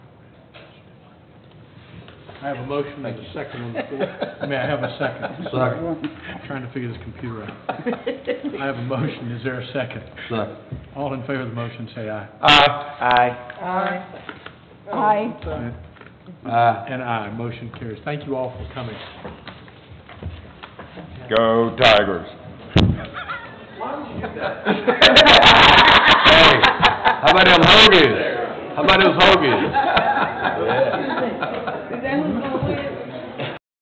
I have a motion and a second on the floor. May I have a second? Second. Trying to figure this computer out. I have a motion, is there a second? Second. All in favor of the motion, say aye. Aye. Aye. Aye. And aye, motion carries. Thank you all for coming. Go Tigers. Hey, how about them hoagies? How about those hoagies?